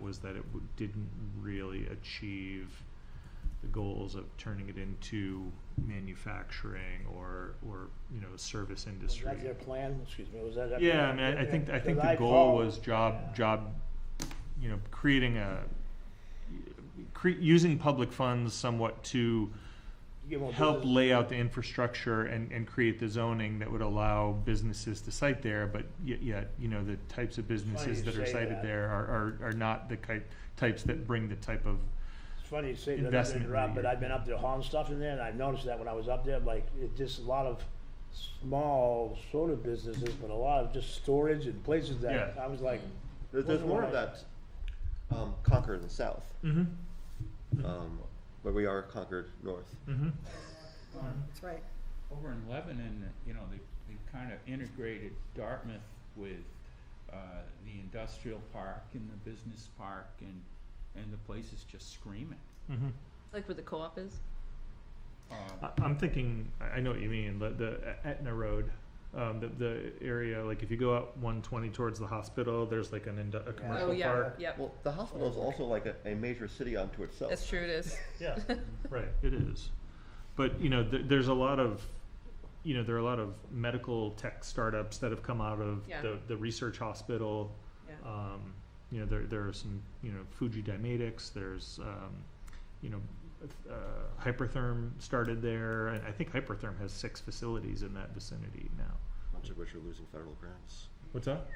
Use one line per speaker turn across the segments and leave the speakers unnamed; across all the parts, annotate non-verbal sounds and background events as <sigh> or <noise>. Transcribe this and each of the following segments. was that it w- didn't really achieve the goals of turning it into manufacturing or, or, you know, service
Was
industry.
that their plan? Excuse me, was that? their
Yeah, I
plan?
mean, I- I think, I think the
Because
goal
called-
was job, job, you know, creating a, cre- using public funds somewhat to
Give them a
help
business-
lay out the infrastructure and, and create the zoning that would allow businesses to site there, but yet, yet, you know, the types of businesses
you
that are
say
cited
that.
there are, are, are not the type, types that bring the type of,
It's funny you say that, I've been
investment
around,
that
but
you're-
I've been up there hauling stuff in there, and I've noticed that when I was up there, like, it just a lot of small sort of businesses, but a lot of just storage and places that,
Yeah.
I was like,
There- There's
Wasn't
more of
right.
that um, Concord in the south,
Mhm,
um, where we are Concord north.
mhm.
That's right.
Over in Lebanon, you know, they, they've kind of integrated Dartmouth with, uh, the industrial park and the business park and, and the place is just screaming.
mhm.
Like where the co-op is?
Uh,
I, I'm thinking, I I know what you mean, the, the Etna Road, um, the, the area, like if you go out one twenty towards the hospital, there's like an, indu- a
Oh,
commercial
yeah,
park.
yep.
Well, the hospital is also like a, a major city unto itself.
That's true, it is.
<laughs> Yeah, right, it is. But, you know, th- there's a lot of, you know, there are a lot of medical tech startups that have come out of
Yeah.
the, the research hospital.
Yeah.
Um, you know, there, there are some, you know, Fuji Dymatics, there's, um, you know, uh, Hypertherm started there, and I think Hypertherm has six facilities in that vicinity now.
Much of which are losing federal grants.
What's that?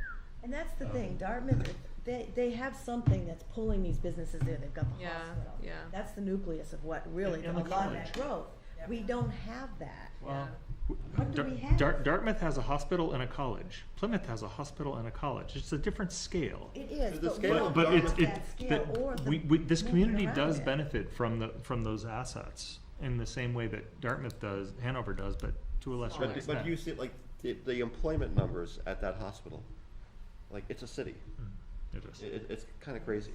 And that's the
Um,
thing, Dartmouth, they, they have something that's pulling these businesses in, they've got the
Yeah,
hospital.
yeah.
That's the nucleus of what really, a
And- and the
lot of that
college.
growth. We don't have that.
Well,
What do
Um, Dar-
we have?
Dar- Dartmouth has a hospital and a college. Plymouth has a hospital and a college. It's a different scale.
It
The
is, but we
scale
don't
of
But, but it's,
have
it,
that scale or
that,
the
we, we, this
movement
community
around
does
it.
benefit from the, from those assets in the same way that Dartmouth does, Hanover does, but to a lesser
But, but you
extent.
see, like, the, the employment numbers at that hospital, like, it's a city.
Mm, It is.
It, it's kind of crazy.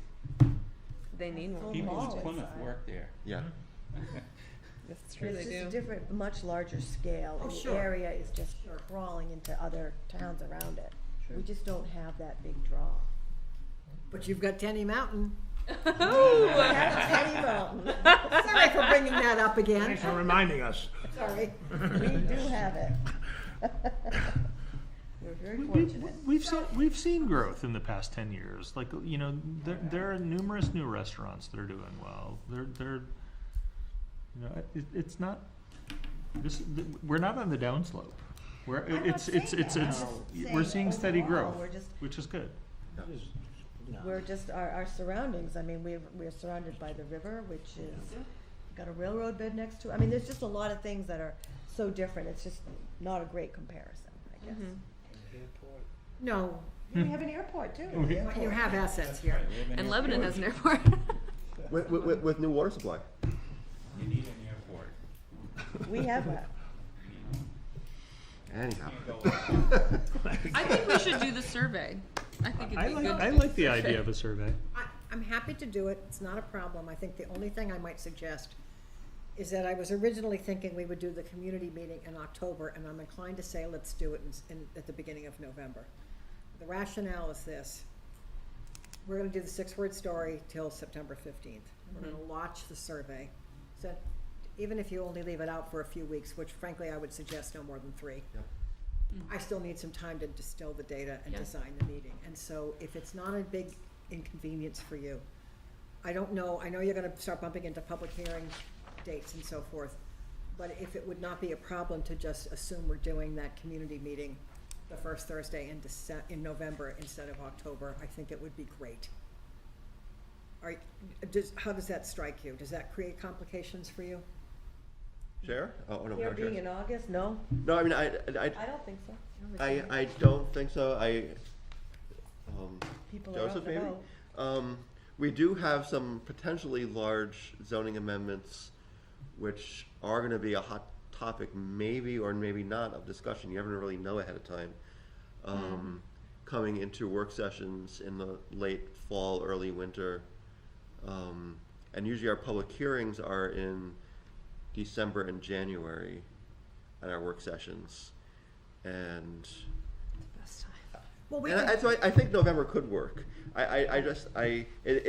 <laughs> They need
Full
one.
people
mall
in Plymouth
inside.
work there.
Yeah.
That's true,
It's
they
just
<laughs>
a
do.
different, much larger scale, and the area is just crawling into other towns around it. We just don't have that big draw.
But you've got
<laughs>
Tenny Mountain.
<laughs>
We have a tiny mountain.
Sorry for bringing that up again.
thanks for reminding us.
Sorry, we do have it. <laughs> We're very
We- we-
fortunate.
We've seen, we've seen growth in the past ten years, like, you know, there, there are numerous new restaurants that are doing well, they're, they're, you know, it, it's not, this, th- we're not on the downslope. We're,
not
it's, it's,
saying
it's,
that.
it's,
I'm just
we're seeing
saying
steady
overall,
growth,
we're just-
which is good.
We're just, our, our surroundings, I mean, we're, we're surrounded by the river, which is, got a railroad bed next to, I mean, there's just a lot of things that are so different, it's just not a great comparison, I
Mm-hmm.
guess.
Mm-hmm. No,
We have an airport too.
but you have assets here.
We have an
And Lebanon
airport.
has an airport. <laughs>
With, with- with, with new water supply.
You need an airport.
We have a,
<laughs> Anyhow.
I think we should do the survey. I think
I
it'd be
like,
good.
I like the idea of a survey.
I, I'm happy to do it, it's not a problem. I think the only thing I might suggest is that I was originally thinking we would do the community meeting in October, and I'm inclined to say let's do it in s- in, at the beginning of November. The rationale is this. We're gonna do the six-word story till September fifteenth. We're gonna launch the survey. So even if you only leave it out for a few weeks, which frankly I would suggest no more than three.
Yep.
Mm.
I still need some time to distill the data and
Yeah.
design the meeting. And so if it's not a big inconvenience for you, I don't know, I know you're gonna start bumping into public hearing dates and so forth, but if it would not be a problem to just assume we're doing that community meeting the first Thursday in Dece- in November instead of October, I think it would be great. Are, does, how does that strike you? Does that create complications for you?
Share? Oh, no,
here
not
being
share.
in August, no,
No, I mean, I, I,
I don't think so,
I, I don't think so. I, um,
people are out
Joseph,
and
maybe?
about.
Um, we do have some potentially large zoning amendments, which are gonna be a hot topic, maybe or maybe not, of discussion, you never really know ahead of time.
Mm-hmm.
Um, coming into work sessions in the late fall, early winter. Um, and usually our public hearings are in December and January, at our work sessions. And
Best time.
Well, we
and
can
I, so I, I think November could work. I, I, I just, I, it,